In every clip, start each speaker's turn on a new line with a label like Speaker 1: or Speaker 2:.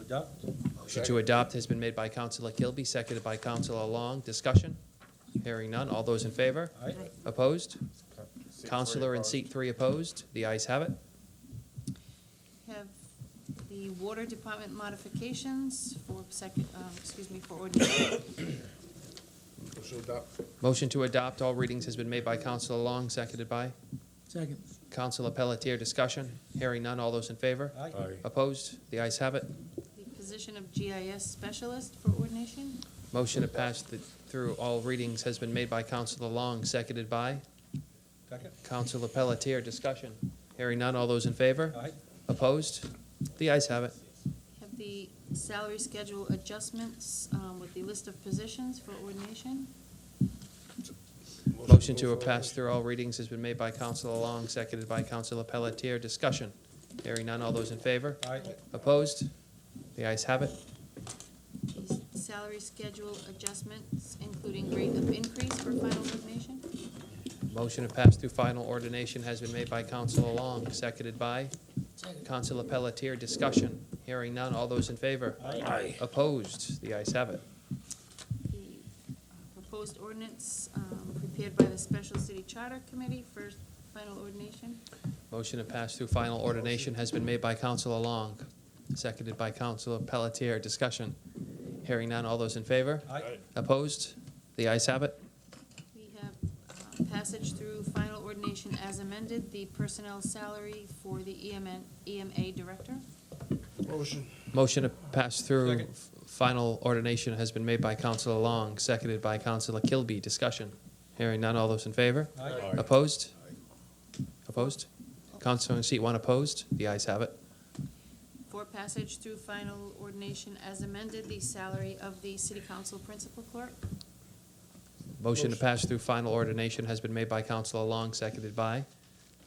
Speaker 1: adopt?
Speaker 2: Motion to adopt has been made by Counselor Kilby, seconded by Counselor Long. Discussion? Hearing none. All those in favor?
Speaker 1: Aye.
Speaker 2: Opposed?
Speaker 3: Seat
Speaker 2: Counselor
Speaker 3: three
Speaker 2: in
Speaker 3: opposed.
Speaker 2: seat three opposed. The ayes have it.
Speaker 4: Have the water department modifications for second, um, excuse me, for ordinance.
Speaker 3: Motion to adopt.
Speaker 2: Motion to adopt all readings has been made by Counselor Long, seconded by
Speaker 1: Second.
Speaker 2: Counselor Pelletier. Discussion? Hearing none. All those in favor?
Speaker 1: Aye.
Speaker 2: Opposed? The ayes have it.
Speaker 4: The position of GIS specialist for ordination.
Speaker 2: Motion to pass the- through all readings has been made by Counselor Long, seconded by
Speaker 1: Second.
Speaker 2: Counselor Pelletier. Discussion? Hearing none. All those in favor?
Speaker 1: Aye.
Speaker 2: Opposed? The ayes have it.
Speaker 4: Have the salary schedule adjustments um, with the list of positions for ordination.
Speaker 2: Motion
Speaker 3: go
Speaker 2: to
Speaker 3: for
Speaker 2: pass through all readings has been made by Counselor Long, seconded by Counselor Pelletier. Discussion. Hearing none. All those in favor?
Speaker 1: Aye.
Speaker 2: Opposed? The ayes have it.
Speaker 4: The salary schedule adjustments, including rate of increase for final ordination.
Speaker 2: Motion to pass through final ordination has been made by Counselor Long, seconded by Counselor Pelletier. Discussion. Hearing none. All those in favor?
Speaker 1: Aye.
Speaker 2: Opposed? The ayes have it.
Speaker 4: The uh, proposed ordinance um, prepared by the Special City Charter Committee for final ordination.
Speaker 2: Motion to pass through final ordination has been made by Counselor Long, seconded by Counselor Pelletier. Discussion. Hearing none. All those in favor?
Speaker 1: Aye.
Speaker 2: Opposed? The ayes have it.
Speaker 4: We have uh, passage through final ordination as amended, the personnel salary for the E EMN EMA director.
Speaker 3: Motion.
Speaker 2: Motion to pass through
Speaker 1: Second.
Speaker 2: f- final ordination has been made by Counselor Long, seconded by Counselor Kilby. Discussion. Hearing none. All those in favor?
Speaker 1: Aye.
Speaker 2: Opposed? Opposed? Counselor in seat one opposed? The ayes have it.
Speaker 4: For passage through final ordination as amended, the salary of the city council principal clerk.
Speaker 2: Motion to pass through final ordination has been made by Counselor Long, seconded by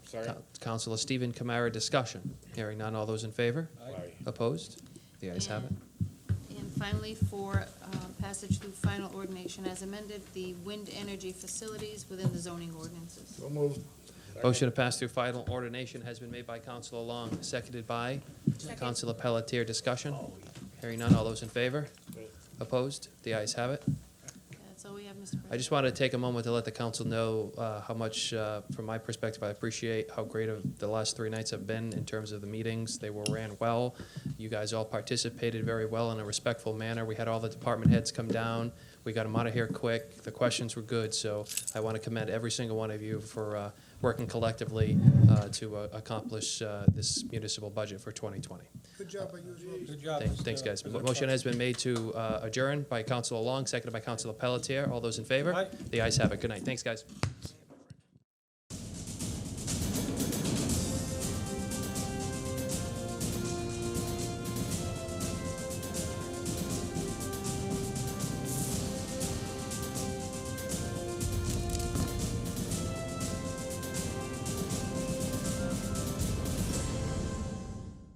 Speaker 3: Sorry.
Speaker 2: Coun- Counselor Stephen Kamara. Discussion. Hearing none. All those in favor?
Speaker 1: Aye.
Speaker 2: Opposed? The ayes have it.
Speaker 4: And- And finally, for uh, passage through final ordination as amended, the wind energy facilities within the zoning ordinances.
Speaker 3: So moved.
Speaker 2: Motion to pass through final ordination has been made by Counselor Long, seconded by Counselor Pelletier. Discussion? Hearing none. All those in favor? Opposed? The ayes have it.
Speaker 4: That's all we have, Mr. President.
Speaker 2: I just wanted to take a moment to let the council know uh, how much, uh, from my perspective, I appreciate how great of the last three nights have been in terms of the meetings. They were ran well. You guys all participated very well in a respectful manner. We had all the department heads come down. We got them out of here quick. The questions were good, so I want to commend every single one of you for uh, working collectively uh, to uh, accomplish uh, this municipal budget for 2020.
Speaker 3: Good job by you.
Speaker 1: Good job.
Speaker 2: Thanks,
Speaker 1: Mr.
Speaker 2: thanks, guys.
Speaker 1: President.
Speaker 2: Motion has been made to uh, adjourn by Counselor Long, seconded by Counselor Pelletier. All those in favor?
Speaker 1: Aye.
Speaker 2: The ayes have it. Good night. Thanks, guys.